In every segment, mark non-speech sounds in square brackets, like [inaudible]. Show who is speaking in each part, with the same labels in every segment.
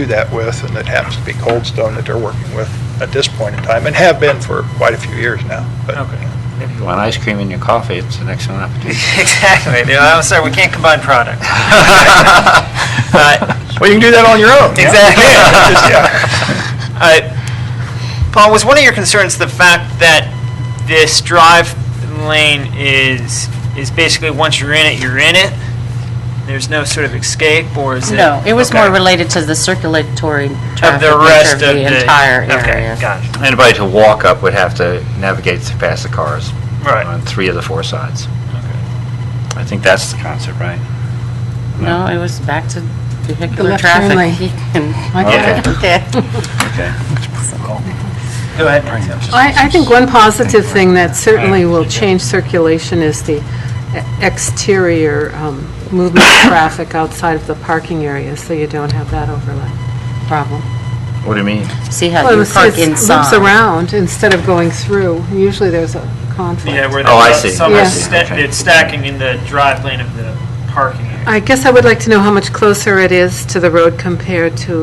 Speaker 1: do that with, and it happens to be Coldstone that they're working with at this point in time, and have been for quite a few years now. But
Speaker 2: Okay.
Speaker 3: If you want ice cream in your coffee, it's an excellent opportunity.
Speaker 2: [laughs] Exactly. No, I'm sorry, we can't combine
Speaker 1: [laughs]
Speaker 2: products. [laughs] But-
Speaker 1: Well, you can do that on your own.
Speaker 2: [laughs] Exactly.
Speaker 1: Yeah, just-
Speaker 2: [laughs]
Speaker 1: yeah.
Speaker 2: Uh, Paul, was one of your concerns the fact that this drive lane is, is basically once you're in it, you're in it? There's no sort of escape, or is it?
Speaker 4: No, it was more
Speaker 2: Okay.
Speaker 4: related to the circulatory
Speaker 2: Of
Speaker 4: traffic
Speaker 2: the rest
Speaker 4: nature of
Speaker 2: of the.
Speaker 4: the entire
Speaker 2: Okay,
Speaker 4: area.
Speaker 2: got it.
Speaker 3: [laughs] Anybody to walk up would have to navigate past the cars.
Speaker 2: Right.
Speaker 3: On three of the four sides.
Speaker 2: Okay.
Speaker 3: I think that's the concept, right?
Speaker 4: No, it was back to vehicular
Speaker 5: left turn
Speaker 4: traffic.
Speaker 5: lane.
Speaker 4: [laughs] He can-
Speaker 3: Okay.
Speaker 4: [laughs] Okay.
Speaker 3: Okay.
Speaker 2: Go ahead, Nancy.
Speaker 5: I, I think one positive thing that certainly will change circulation is the exterior um, movement of traffic outside of the parking area, so you don't have that overlap problem.
Speaker 3: What do you mean?
Speaker 4: See how
Speaker 5: Well,
Speaker 4: you
Speaker 5: it's-
Speaker 4: park
Speaker 5: it's- loops
Speaker 4: inside.
Speaker 5: around instead of going through. Usually there's a conflict.
Speaker 2: Yeah, where
Speaker 3: Oh, I
Speaker 2: there's
Speaker 3: see.
Speaker 2: some,
Speaker 5: Yeah.
Speaker 2: sta-
Speaker 3: Okay.
Speaker 2: it's stacking in the drive lane of the parking area.
Speaker 5: I guess I would like to know how much closer it is to the road compared to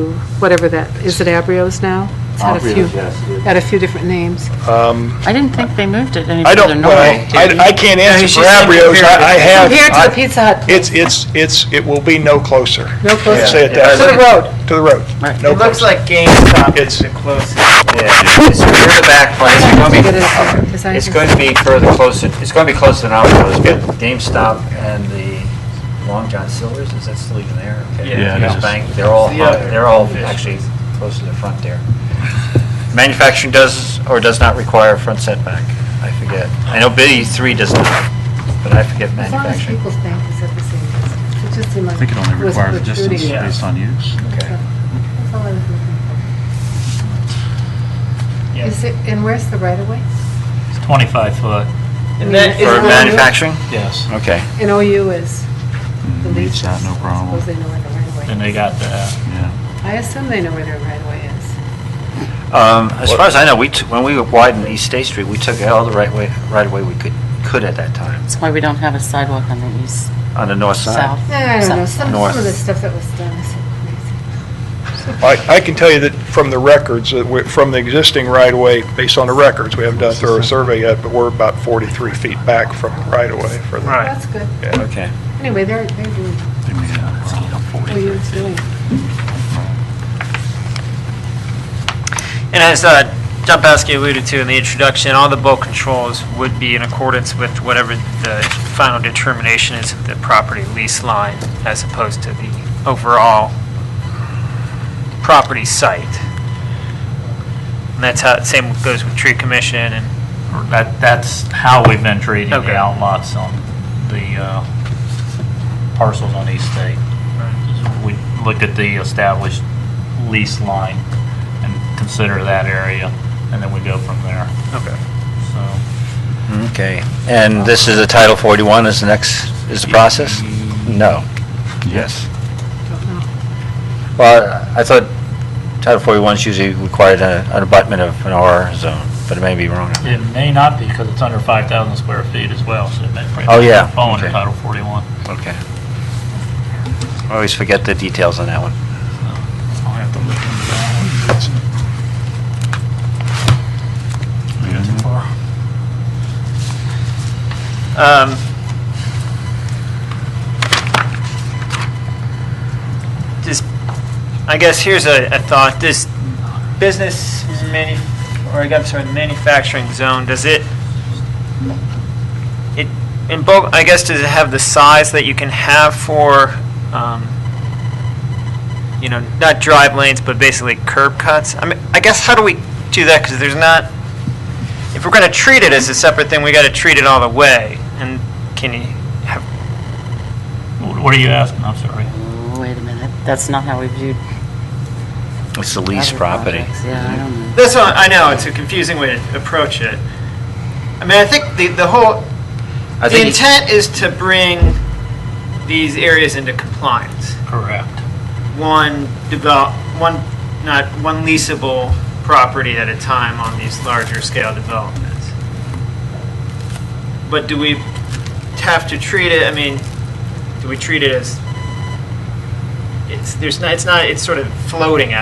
Speaker 5: whatever that, is it Abrio's now? It's had a few-
Speaker 3: Abrio's, yes, it is.
Speaker 5: Had a few different names.
Speaker 4: I didn't think they moved it any
Speaker 1: I
Speaker 4: further
Speaker 1: don't, well,
Speaker 4: north.
Speaker 1: I I can't answer
Speaker 2: she's
Speaker 1: for
Speaker 2: saying
Speaker 1: Abrios.
Speaker 2: compared to-
Speaker 1: I I have.
Speaker 5: Compared to
Speaker 1: I-
Speaker 5: the Pizza Hut,
Speaker 1: It's, it's, it's, it will be no closer.
Speaker 5: no
Speaker 1: Let's Say
Speaker 5: closer.
Speaker 1: it that
Speaker 5: To the
Speaker 1: way.
Speaker 5: road.
Speaker 1: To the road.
Speaker 4: Right.
Speaker 1: No
Speaker 2: It looks
Speaker 1: closer.
Speaker 2: like GameStop is
Speaker 1: It's-
Speaker 2: the closest.
Speaker 3: Yeah, it's near the back place. It's gonna
Speaker 5: It is,
Speaker 3: be-
Speaker 5: because I-
Speaker 3: It's going to be further closer, it's going to be closer than our place, but GameStop and the Long John Silvers, is that still even there? Okay.
Speaker 2: Yeah. Yeah,
Speaker 3: Yes,
Speaker 2: it is.
Speaker 3: Bank, they're all,
Speaker 2: The other
Speaker 3: they're all
Speaker 2: fish.
Speaker 3: actually close to the front there. Manufacturing does or does not require a front setback, I forget. I know B three does not, but I forget
Speaker 5: As long as
Speaker 3: manufacturing.
Speaker 5: People's Bank is at the same distance. It just seemed like.
Speaker 6: I think it only
Speaker 5: was
Speaker 6: requires a distance
Speaker 5: protruding.
Speaker 2: Yeah.
Speaker 6: based on use.
Speaker 3: Okay.
Speaker 5: That's all I was looking for.
Speaker 2: Yeah.
Speaker 5: Is it, and where's the right of way?
Speaker 7: It's 25 foot.
Speaker 2: And then
Speaker 5: Is
Speaker 3: For
Speaker 5: it-
Speaker 3: manufacturing?
Speaker 7: Yes.
Speaker 3: Okay.
Speaker 5: And OU is. the
Speaker 6: Reads that, no
Speaker 5: least.
Speaker 6: problem.
Speaker 5: Suppose they know where the right of
Speaker 7: And
Speaker 5: way
Speaker 7: they
Speaker 5: is.
Speaker 7: got the,
Speaker 6: Yeah.
Speaker 5: I assume they know where their right of way is.
Speaker 3: Um, As far as I know, we, t- when we widened East State Street, we took all the right way, right away we could, could at that time,
Speaker 4: That's why we don't have a sidewalk on the east,
Speaker 3: on the north side.
Speaker 4: south.
Speaker 5: Nah, Eh, I don't know,
Speaker 4: south.
Speaker 5: some,
Speaker 3: North.
Speaker 5: some of the stuff that was done is so crazy.
Speaker 1: I, I can tell you that from the records, that we- from the existing right-of-way, based on the records, we haven't done a thorough survey yet, but we're about 43 feet back from the right-of-way for the...
Speaker 2: Right.
Speaker 5: That's good.
Speaker 1: Yeah.
Speaker 3: Okay.
Speaker 5: Anyway, they're, they're doing,
Speaker 6: They made it up.
Speaker 5: OU is doing.
Speaker 2: And as uh, John Paskey alluded to in the introduction, all the bulk controls would be in accordance with whatever the final determination is of the property lease line as opposed to the overall property site. And that's how, same goes with tree commission and,
Speaker 7: that, that's how we've been treating the
Speaker 2: Okay.
Speaker 7: outlots on the uh, parcels on East State. We looked at the established lease line and consider that area, and then we go from there,
Speaker 2: okay.
Speaker 7: so.
Speaker 3: Okay. Hmm? And this is a Title 41 is the next, is the process? No. Yes. Well, I thought Title 41's usually required a- an abutment of an R zone, but it may be wrong.
Speaker 7: It may not be because it's under 5,000 square feet as well, so it may. probably
Speaker 3: Oh, yeah.
Speaker 7: Fall under
Speaker 3: Okay.
Speaker 7: Title 41.
Speaker 3: Okay. I always forget the details on that one.
Speaker 7: I'll have to look into that one.
Speaker 2: Um, Just, I guess here's a, a thought, this business manu, or I'm sorry, manufacturing zone, does it, it, in bulk, I guess, does it have the size that you can have for, um, you know, not drive lanes, but basically curb cuts? I mean, I guess how do we do that, because there's not, if we're going to treat it as a separate thing, we got to treat it all the way. And can you have,
Speaker 7: What are you asking? I'm sorry.
Speaker 4: Oh, Wait a minute, that's not how we viewed
Speaker 3: It's the lease
Speaker 4: other
Speaker 3: property.
Speaker 4: projects. Yeah, I don't know.
Speaker 2: that's what, I know, it's a confusing way to approach it. I mean, I think the, the whole, the
Speaker 3: I think-
Speaker 2: intent is to bring these areas into compliance.
Speaker 7: Correct.
Speaker 2: One develop, one, not, one leasable property at a time on these larger scale developments. But do we have to treat it, I mean, do we treat it as, it's it's, there's not, it's not, it's sort of floating out.